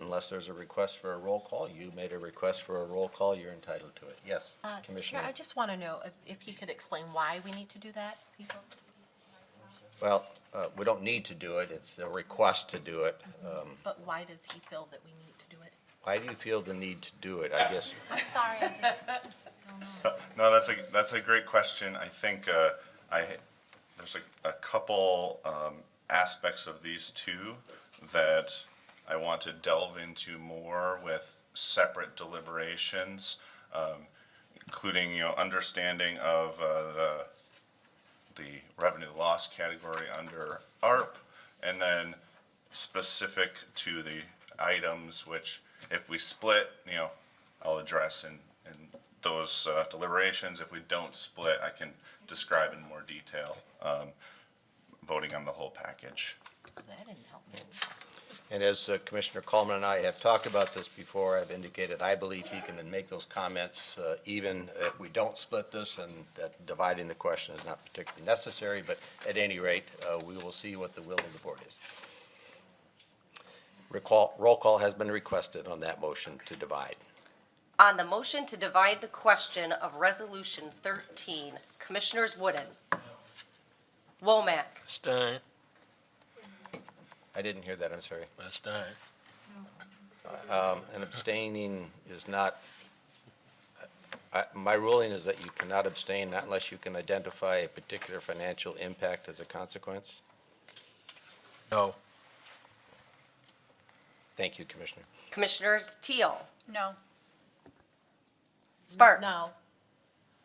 unless there's a request for a roll call. You made a request for a roll call, you're entitled to it. Yes, Uh, Chair, Commissioner. I just want to know if- if you could explain why we need to do that, Peoples? Well, uh, we don't need to do it, it's a request to do it. Um, But why does he feel that we need to do it? Why do you feel the need to do it, I guess? I'm sorry, I just don't know. No, that's a that's a great question. I think uh, I there's a, a couple um, aspects of these two that I want to delve into more with separate deliberations, um, including you know understanding of uh, the the revenue loss category under ARP, and then specific to the items which, if we split, you know, I'll address in, in those uh, deliberations. If we don't split, I can describe in more detail, um, voting on the whole package. That didn't help me. And as uh, Commissioner Coleman and I have talked about this before, I've indicated I believe he can make those comments uh, even if we don't split this, and that dividing the question is not particularly necessary, but at any rate, uh, we will see what the will of the board is. Recall, roll call has been requested on that motion to divide. On the motion to divide the question of Resolution 13, Commissioners Wooden. Womack. Stein, I didn't hear that, I'm sorry. by Stein. Um, And abstaining is not, I- my ruling is that you cannot abstain not unless you can identify a particular financial impact as a consequence. No. Thank you, Commissioner. Commissioners Teal. No. Sparks. No.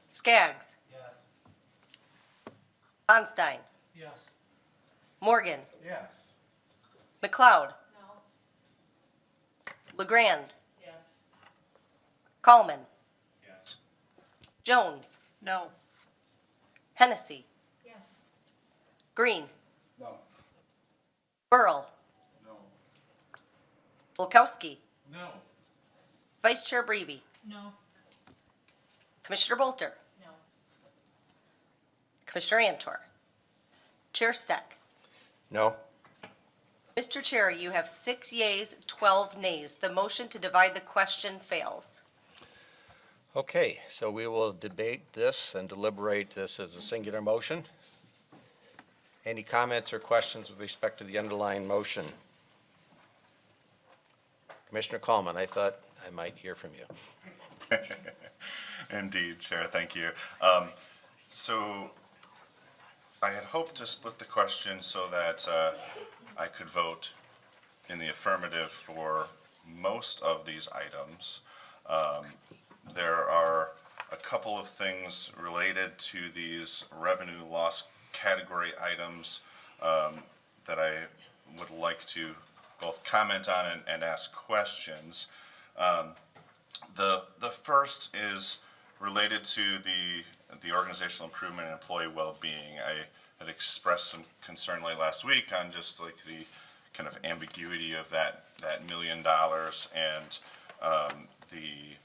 Skaggs. Yes. Onstein. Yes. Morgan. Yes. McLeod. LeGrand. Coleman. Yes. Jones. No. Hennessy. Green. No. Burl. No. Bulkowski. No. Vice Chair Breby. No. Commissioner Bolter. No. Commissioner Antor. Chair Steck. No? Mr. Chair, you have six yeas, 12 nays. The motion to divide the question fails. Okay, so we will debate this and deliberate this as a singular motion. Any comments or questions with respect to the underlying motion? Commissioner Coleman, I thought I might hear from you. Indeed, Chair, thank you. Um, So I had hoped to split the question so that uh, I could vote in the affirmative for most of these items. Um, There are a couple of things related to these revenue loss category items um, that I would like to both comment on and- and ask questions. Um, the the first is related to the the organizational improvement and employee well-being. I had expressed some concern late last week on just like the kind of ambiguity of that that million dollars and um, the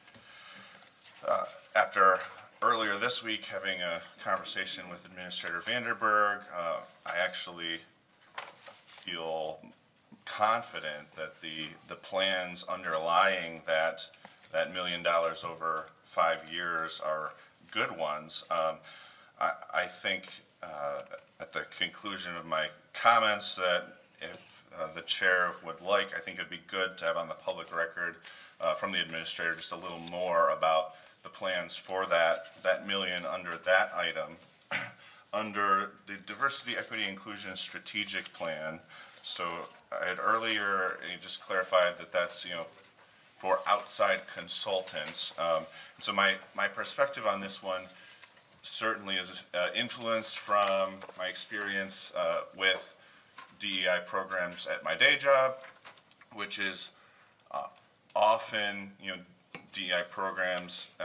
uh, after earlier this week having a conversation with Administrator Vanderberg, uh, I actually feel confident that the, the plans underlying that, that million dollars over five years are good ones. Um, I, I think uh, at the conclusion of my comments that if uh, the chair would like, I think it'd be good to have on the public record uh, from the administrator just a little more about the plans for that, that million under that item. Under the diversity, equity, inclusion strategic plan, so I had earlier uh, just clarified that that's, you know, for outside consultants. Um, and So my, my perspective on this one certainly is uh, influenced from my experience uh, with DEI programs at my day job, which is uh, often, you know, DEI programs uh,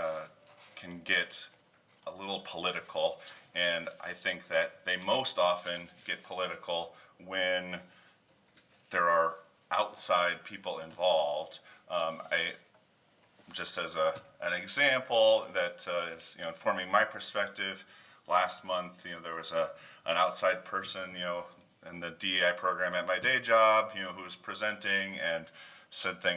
can get a little political, and I think that they most often get political when there are outside people involved. Um, I, just as a, an example that uh, is, you know, informing my perspective, last month, you know, there was a, an outside person, you know, in the DEI program at my day job, you know, who was presenting and said things